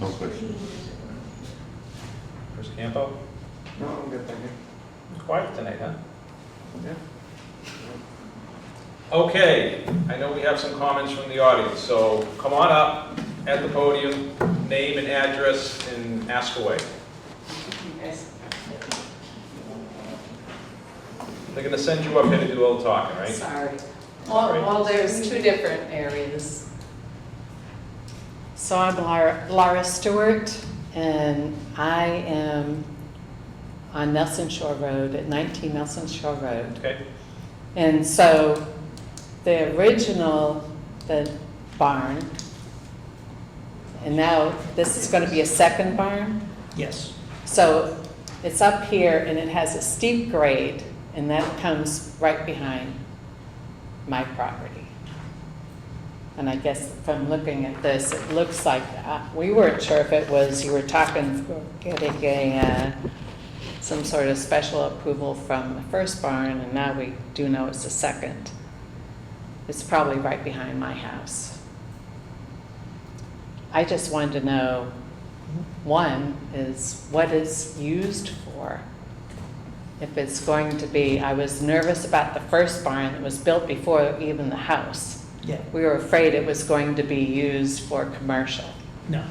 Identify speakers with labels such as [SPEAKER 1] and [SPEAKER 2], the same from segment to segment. [SPEAKER 1] No question.
[SPEAKER 2] Chris Campo,
[SPEAKER 1] No, I'm good, thank you.
[SPEAKER 2] quiet tonight, huh?
[SPEAKER 1] Yeah.
[SPEAKER 2] Okay, I know we have some comments from the audience, so come on up at the podium, name and address, and ask away. They're gonna send you up here to do all the talking, right?
[SPEAKER 3] Sorry.
[SPEAKER 2] Sorry.
[SPEAKER 3] Well, well, there's two different areas.
[SPEAKER 4] So I'm Lara, Lara Stewart, and I am on Nelson Shore Road, at 19 Nelson Shore Road.
[SPEAKER 2] Okay,
[SPEAKER 4] And so the original, the barn, and now this is going to be a second barn?
[SPEAKER 5] Yes,
[SPEAKER 4] So it's up here and it has a steep grade, and that comes right behind my property. And I guess from looking at this, it looks like, uh, we weren't sure if it was, you were talking, getting a, uh, some sort of special approval from the first barn, and now we do know it's the second. It's probably right behind my house. I just wanted to know one is what it's used for. If it's going to be, I was nervous about the first barn that was built before even the house.
[SPEAKER 5] yeah,
[SPEAKER 4] We were afraid it was going to be used for commercial,
[SPEAKER 5] no,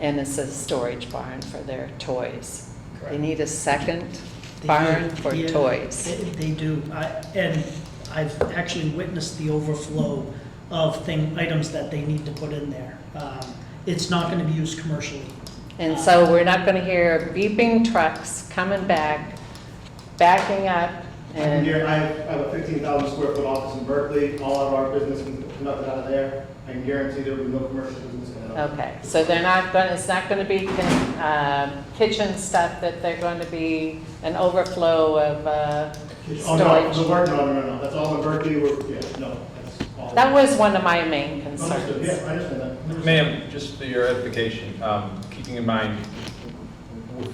[SPEAKER 4] and it's a storage barn for their toys. They
[SPEAKER 5] correct.
[SPEAKER 4] need a second
[SPEAKER 5] They
[SPEAKER 4] barn
[SPEAKER 5] do,
[SPEAKER 4] for
[SPEAKER 5] yeah,
[SPEAKER 4] toys.
[SPEAKER 5] they- They do, I, and I've actually witnessed the overflow of thing, items that they need to put in there. Um, It's not gonna be used commercially.
[SPEAKER 4] And so we're not gonna hear beeping trucks coming back, backing up,
[SPEAKER 6] I'm
[SPEAKER 4] and
[SPEAKER 6] Here, I have I have a fifteen thousand square foot office in Berkeley, all of our business is conducted out of there. I can guarantee there will be no commercial business going on.
[SPEAKER 4] Okay, so they're not going, it's not going to be uh, kitchen stuff, that they're going to be an overflow of, uh,
[SPEAKER 6] Oh, no,
[SPEAKER 4] Storage.
[SPEAKER 6] the work, no, no, no, no, that's all in Berkeley, we're, yeah, no, that's all.
[SPEAKER 4] that was one of my main
[SPEAKER 6] Understood, yeah,
[SPEAKER 4] concerns.
[SPEAKER 6] I understand that.
[SPEAKER 2] ma'am, just for your edification, um, keeping in mind,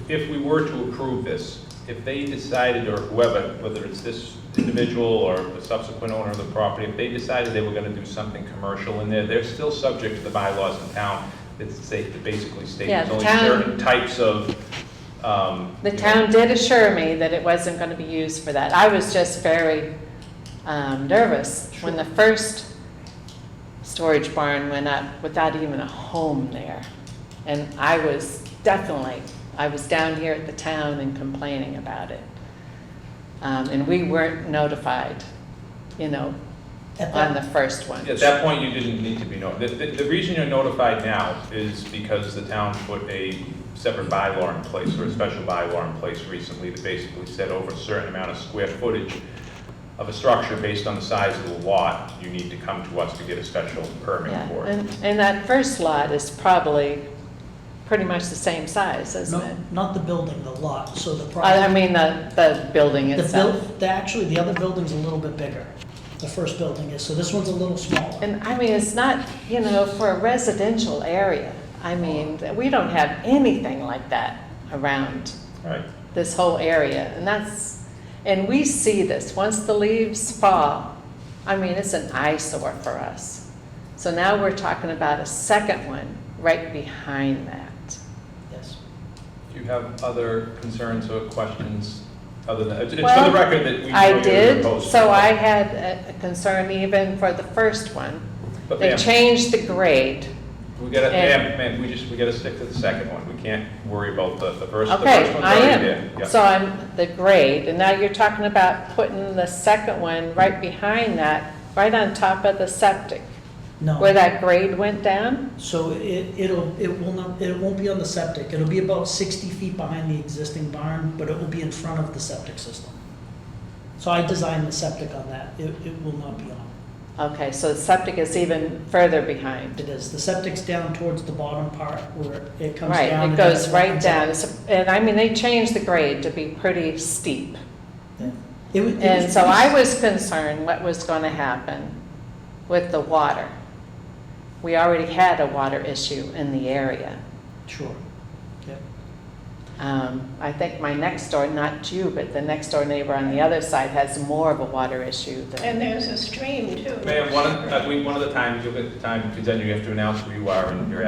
[SPEAKER 2] if we were to approve this, if they decided, or whoever, whether it's this individual or the subsequent owner of the property, if they decided they were gonna do something commercial in there, they're still subject to the bylaws in town that say, that basically state
[SPEAKER 4] Yeah,
[SPEAKER 2] there's
[SPEAKER 4] the
[SPEAKER 2] only
[SPEAKER 4] town-
[SPEAKER 2] certain types of, um.
[SPEAKER 4] The
[SPEAKER 2] you know,
[SPEAKER 4] town did assure me that it wasn't going to be used for that. I was just very um, nervous when the first storage barn went up without even a home there. And I was definitely, I was down here at the town and complaining about it. Um, And we weren't notified, you know,
[SPEAKER 5] At
[SPEAKER 4] on
[SPEAKER 5] that-
[SPEAKER 4] the first one.
[SPEAKER 2] At that point, you didn't need to be notified. The, the- the reason you're notified now is because the town put a separate bylaw in place, or a special bylaw in place recently that basically said over a certain amount of square footage of a structure based on the size of the lot, you need to come to us to get a special permit
[SPEAKER 4] Yeah,
[SPEAKER 2] for it.
[SPEAKER 4] And and that first lot is probably pretty much the same size, isn't
[SPEAKER 5] No,
[SPEAKER 4] it?
[SPEAKER 5] Not the building, the lot, so the
[SPEAKER 4] I I
[SPEAKER 5] project.
[SPEAKER 4] mean, the, the building
[SPEAKER 5] The
[SPEAKER 4] itself.
[SPEAKER 5] buil- the- actually, the other building's a little bit bigger, the first building is, so this one's a little smaller.
[SPEAKER 4] And I mean, it's not, you know, for a residential area. I mean, we don't have anything like that around
[SPEAKER 2] Right,
[SPEAKER 4] this whole area. And that's, and we see this, once the leaves fall, I mean, it's an eyesore for us. So now we're talking about a second one right behind that.
[SPEAKER 5] Yes.
[SPEAKER 2] do you have other concerns or questions other than, it's it's for
[SPEAKER 4] Well,
[SPEAKER 2] the record that we.
[SPEAKER 4] I
[SPEAKER 2] know you're
[SPEAKER 4] did,
[SPEAKER 2] opposed to
[SPEAKER 4] so
[SPEAKER 2] it.
[SPEAKER 4] I had a- a concern even for the first one.
[SPEAKER 2] But
[SPEAKER 4] They
[SPEAKER 2] ma'am,
[SPEAKER 4] changed the grade.
[SPEAKER 2] We gotta, ma'am,
[SPEAKER 4] and-
[SPEAKER 2] ma'am, we just, we gotta stick to the second one. We can't worry about the, the first, the
[SPEAKER 4] Okay,
[SPEAKER 2] first one's
[SPEAKER 4] I
[SPEAKER 2] already there.
[SPEAKER 4] am.
[SPEAKER 2] Yeah.
[SPEAKER 4] So I'm the grade, and now you're talking about putting the second one right behind that, right on top of the septic,
[SPEAKER 5] No.
[SPEAKER 4] where that grade went down?
[SPEAKER 5] So it, it'll, it will not, it won't be on the septic, it'll be about sixty feet behind the existing barn, but it will be in front of the septic system. So I designed the septic on that, it, it will not be on,
[SPEAKER 4] Okay, so the septic is even further behind.
[SPEAKER 5] it is, the septic's down towards the bottom part where it comes
[SPEAKER 4] Right,
[SPEAKER 5] down.
[SPEAKER 4] it
[SPEAKER 5] and
[SPEAKER 4] goes
[SPEAKER 5] then
[SPEAKER 4] right
[SPEAKER 5] comes up.
[SPEAKER 4] down. It's- And I mean, they changed the grade to be pretty steep.
[SPEAKER 5] It was- it
[SPEAKER 4] And
[SPEAKER 5] was-
[SPEAKER 4] so I was concerned what was going to happen with the water. We already had a water issue in the area.
[SPEAKER 5] Sure, yeah,
[SPEAKER 4] Um, I think my next door, not you, but the next door neighbor on the other side has more of a water issue than.
[SPEAKER 7] And there's a stream too.
[SPEAKER 2] Ma'am, one, of- uh, we- one of the times, you'll get the time, because then you have to announce who you are and your